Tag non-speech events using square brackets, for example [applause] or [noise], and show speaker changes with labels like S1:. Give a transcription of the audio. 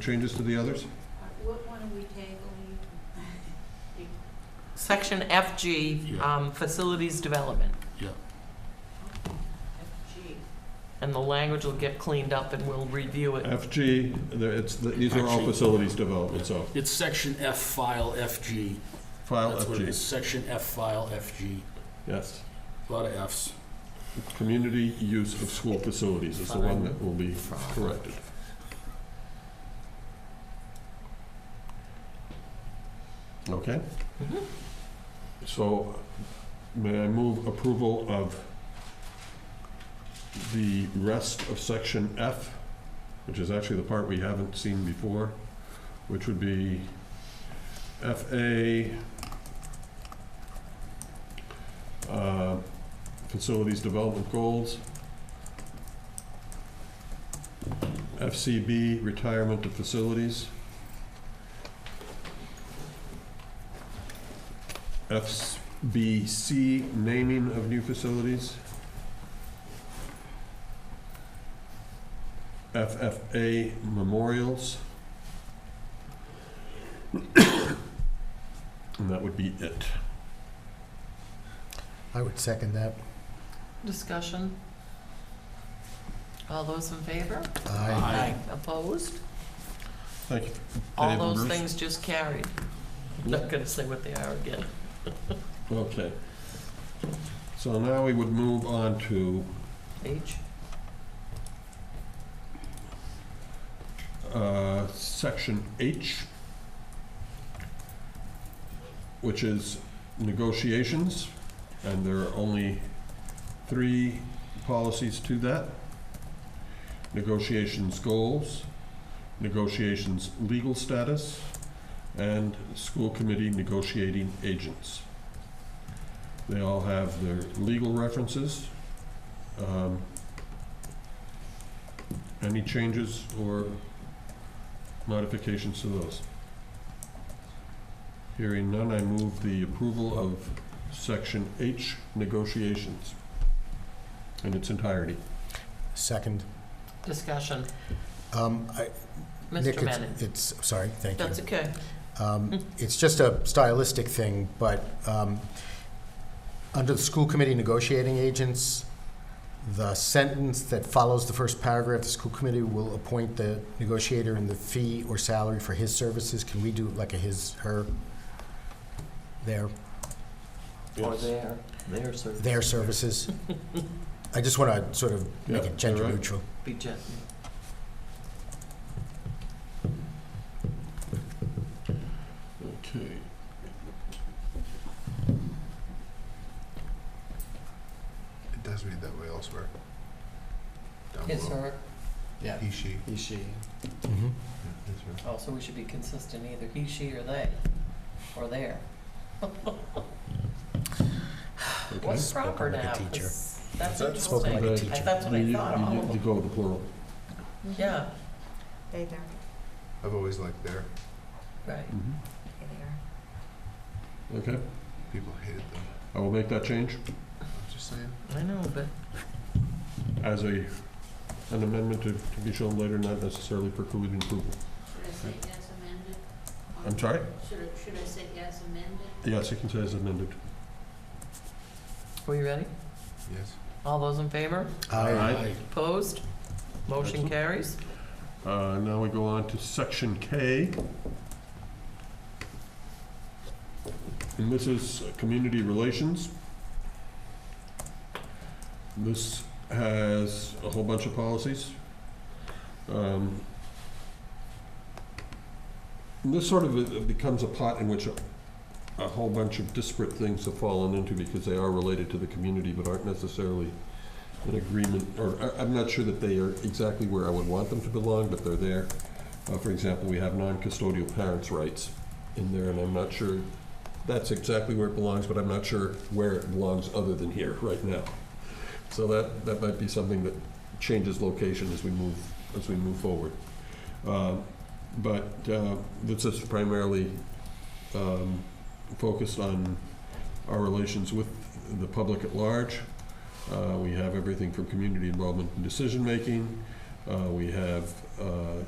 S1: Changes to the others?
S2: What one are we tabling?
S3: Section FG,
S4: Yeah.
S3: um, facilities development,
S2: Gee,
S3: and the language will get cleaned up and we'll review it.
S1: FG, there- it's, the- these are all
S4: Actually-
S1: facilities development, so
S4: It's section F file FG.
S1: file
S4: That's what it is,
S1: FG,
S4: section F file FG.
S1: yes.
S4: A lot of Fs.
S1: Community use of school facilities is the one that will be corrected. Okay?
S3: Mhm.
S1: So may I move approval of the rest of section F, which is actually the part we haven't seen before, which would be FA, uh, facilities development goals, FCB, retirement of facilities, FBC, naming of new facilities, FFA, memorials, [coughs] and that would be it.
S5: I would second that.
S3: Discussion. All those in favor?
S5: Aye.
S4: Aye.
S3: Opposed?
S1: Thank you.
S3: All
S1: Dave and
S3: those
S1: Bruce?
S3: things just carried. I'm Not gonna say what they are again.
S1: Okay. So now we would move on to
S3: H,
S1: uh, Section H, which is negotiations, and there are only three policies to that. Negotiations goals, negotiations legal status, and school committee negotiating agents. They all have their legal references. Um, Any changes or modifications to those? Hearing none, I move the approval of Section H, negotiations, in its entirety.
S5: Second.
S3: discussion.
S5: Um, I- Nick,
S3: Mr.
S5: it's-
S3: Bennett?
S5: It's, sorry, thank you.
S3: That's okay. Hmm.
S5: Um, It's just a stylistic thing, but um, under the school committee negotiating agents, the sentence that follows the first paragraph, the school committee will appoint the negotiator and the fee or salary for his services. Can we do like a his, her, there?
S3: Or their, their service.
S4: [laughs]
S5: their services. I just want to sort of make
S1: Yeah,
S5: it gender
S1: you're right.
S5: neutral.
S3: Be gentle.
S1: Okay.
S6: It does read that way elsewhere. Down
S3: His,
S6: below.
S3: her, yeah.
S6: He, she.
S3: He, she.
S5: Mm-hmm.
S6: Yeah, that's right.
S3: Oh, so we should be consistent, either he, she, or they, or their.
S1: okay.
S3: What's
S5: Spoken
S3: proper
S5: like a
S3: now?
S5: teacher.
S3: 'Cause That's
S6: That's
S3: interesting.
S5: Spoken like a
S1: Right.
S3: I-
S5: teacher.
S3: That's what I
S1: You-
S3: thought,
S1: you-
S3: all
S1: you-
S3: of
S1: You
S3: them.
S1: go with the plural.
S3: Yeah,
S2: Mm-hmm. They there,
S6: I've always liked there.
S3: right.
S5: Mm-hmm.
S2: they there.
S1: Okay,
S6: People hated them.
S1: I will make that change
S6: I'm just saying.
S3: I know, but
S1: as a, an amendment to to be shown later, not necessarily precluding approval.
S2: Should I say yes amended?
S1: I'm sorry?
S2: Should I, should I say yes amended?
S1: Yes, you can say as amended.
S3: Are you ready?
S6: Yes.
S3: All those in favor?
S1: Aye.
S3: Opposed? Motion
S1: Excellent.
S3: carries.
S1: Uh, Now we go on to section K. And this is uh, community relations. This has a whole bunch of policies. Um, and This sort of uh, becomes a pot in which a- a whole bunch of disparate things have fallen into because they are related to the community but aren't necessarily an agreement, or I- I'm not sure that they are exactly where I would want them to belong, but they're there. Uh, For example, we have non-custodial parents' rights in there, and I'm not sure, that's exactly where it belongs, but I'm not sure where it belongs other than here, right now. So that, that might be something that changes location as we move, as we move forward. Um, But uh, this is primarily um, focused on our relations with the public at large. Uh, We have everything from community involvement in decision-making. Uh, We have uh,